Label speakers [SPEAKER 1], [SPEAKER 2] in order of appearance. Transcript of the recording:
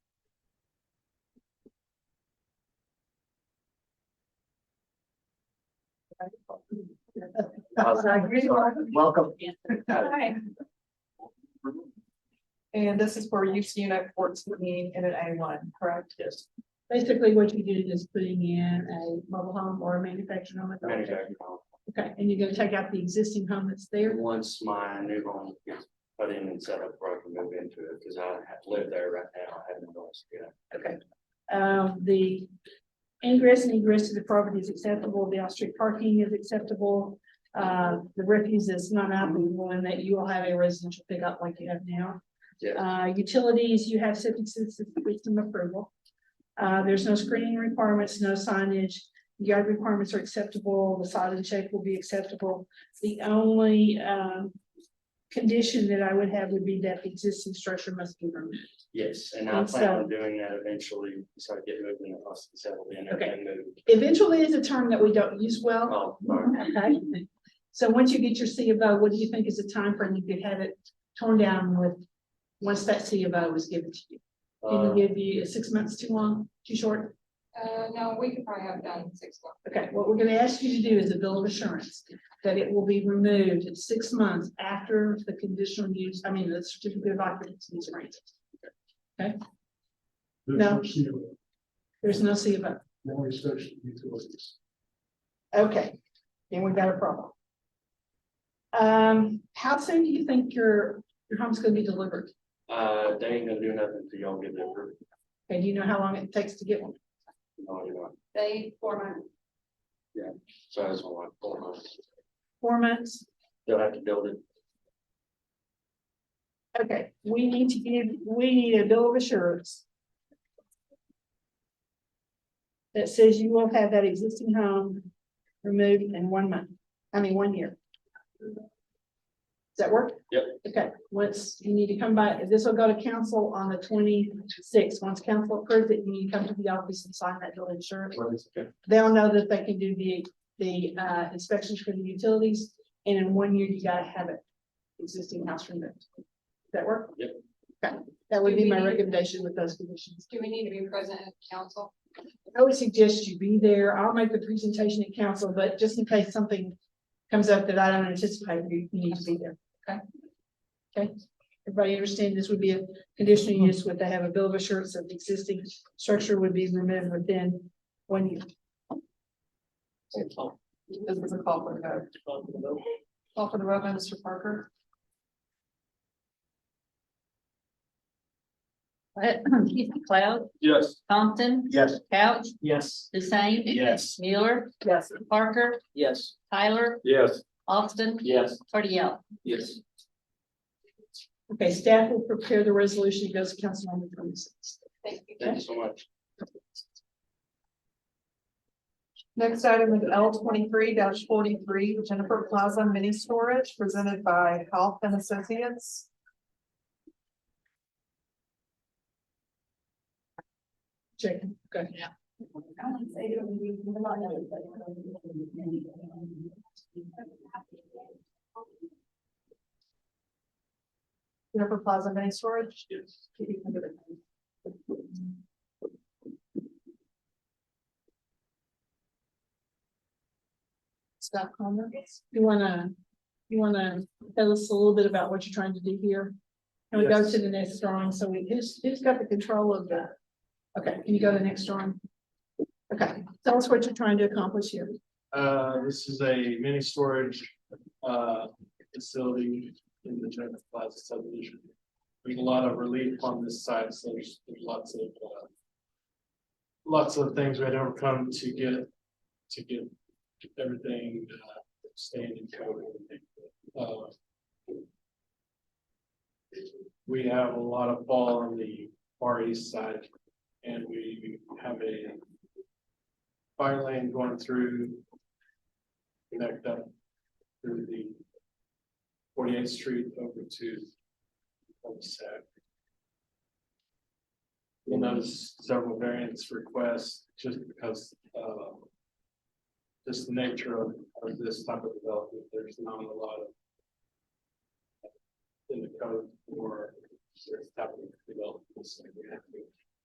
[SPEAKER 1] Welcome.
[SPEAKER 2] Hi,
[SPEAKER 3] And this is for use unit fourteen in an A one, correct?
[SPEAKER 1] Yes.
[SPEAKER 2] basically what you did is putting in a mobile home or a manufactured home.
[SPEAKER 1] manufactured home.
[SPEAKER 2] Okay, and you're gonna take out the existing home that's there?
[SPEAKER 1] Once my new home gets put in and set up, where I can move into it, because I have lived there right now, I haven't noticed yet.
[SPEAKER 2] Okay. Um, the ingress and egress to the property is acceptable, the off-street parking is acceptable. Uh, the refuse is not out, the one that you will have a residential pickup like you have now.
[SPEAKER 1] Yeah.
[SPEAKER 2] Uh, utilities, you have septic system system approval. Uh, there's no screening requirements, no signage, yard requirements are acceptable, the size and shape will be acceptable. The only, um, condition that I would have would be that the existing structure must be removed.
[SPEAKER 1] Yes, and I
[SPEAKER 2] And
[SPEAKER 1] plan
[SPEAKER 2] so-
[SPEAKER 1] on doing that eventually, so I get moved in the house and settled in and
[SPEAKER 2] Okay.
[SPEAKER 1] then move.
[SPEAKER 2] Eventually is a term that we don't use well.
[SPEAKER 1] Oh, sorry.
[SPEAKER 2] Okay. So once you get your C of O, what do you think is the time frame you could have it torn down with? Once that C of O is given to you,
[SPEAKER 1] Uh,
[SPEAKER 2] can you give you six months too long, too short?
[SPEAKER 4] Uh, no, we could probably have done six months.
[SPEAKER 2] Okay, what we're gonna ask you to do is a bill of assurance that it will be removed in six months after the conditional use, I mean, the certificate of occupancy is granted. No. There's no C of O.
[SPEAKER 5] No restriction utilities.
[SPEAKER 2] Okay, then we've got a problem. Um, how soon do you think your, your home's gonna be delivered?
[SPEAKER 1] uh, they ain't gonna do nothing till y'all get there.
[SPEAKER 2] Okay, do you know how long it takes to get one?
[SPEAKER 1] No, you know,
[SPEAKER 4] They, four months,
[SPEAKER 1] so I just want like four months.
[SPEAKER 2] Four months?
[SPEAKER 1] They'll have to build it.
[SPEAKER 2] Okay, we need to give, we need a bill of assurance. That says you will have that existing home removed in one month, I mean, one year. Does that work?
[SPEAKER 1] Yep.
[SPEAKER 2] Okay, once you need to come by, this will go to council on the twenty-sixth. Once council approves it, you need to come to the office and sign that bill of insurance. They'll know that they can do the, the, uh, inspections for the utilities, and in one year, you gotta have it existing house removed. Does that work?
[SPEAKER 1] Yep.
[SPEAKER 2] Okay, that would be my recommendation with those conditions.
[SPEAKER 4] do we need to be present at council?
[SPEAKER 2] I would suggest you be there. I'll make the presentation at council, but just in case something comes up that I don't anticipate, you you need to be there. Okay? Okay, everybody understand this would be a
[SPEAKER 3] Mm-hmm.
[SPEAKER 2] conditional use, would they have a bill of assurance that the existing structure would be removed within one year?
[SPEAKER 3] This is a call for the vote. Call for the vote, by Mr. Parker.
[SPEAKER 6] Keith McLeod,
[SPEAKER 1] Yes.
[SPEAKER 6] Compton,
[SPEAKER 1] Yes.
[SPEAKER 6] Couch,
[SPEAKER 1] Yes.
[SPEAKER 6] Hussein.
[SPEAKER 1] Yes.
[SPEAKER 6] Mueller,
[SPEAKER 3] Yes.
[SPEAKER 6] Parker,
[SPEAKER 1] Yes.
[SPEAKER 6] Tyler,
[SPEAKER 1] Yes.
[SPEAKER 6] Austin,
[SPEAKER 1] Yes.
[SPEAKER 6] Cardell.
[SPEAKER 1] Yes.
[SPEAKER 2] Okay, staff will prepare the resolution, it goes to council on the twenty-sixth.
[SPEAKER 4] Thank you.
[SPEAKER 1] Thank you so much.
[SPEAKER 3] Next item is L twenty-three forty-three, Jennifer Plaza Mini Storage, presented by Health and Associates.
[SPEAKER 2] Chicken, okay. Yeah.
[SPEAKER 3] Jennifer Plaza Mini Storage.
[SPEAKER 2] Staff comments, you wanna, you wanna tell us a little bit about what you're trying to do here? Can we go
[SPEAKER 5] Yes.
[SPEAKER 2] to the next drawing, so we, who's, who's got the control of the, okay, can you go to the next drawing? Okay, tell us what you're trying to accomplish here.
[SPEAKER 5] Uh, this is a mini storage, uh, facility in the General Plaza subdivision. There's a lot of relief on this side, so there's there's lots of, uh. Lots of things we had overcome to get, to get everything, uh, staying in code. and everything. Uh, We have a lot of fall on the far east side, and we have a fire lane going through. Connect up through the forty-eighth street over to. cul-de-sac. You'll notice several variance requests just because, uh. Just the nature of, of this type of development, there's not a lot of. In the code for this type of development, so we have to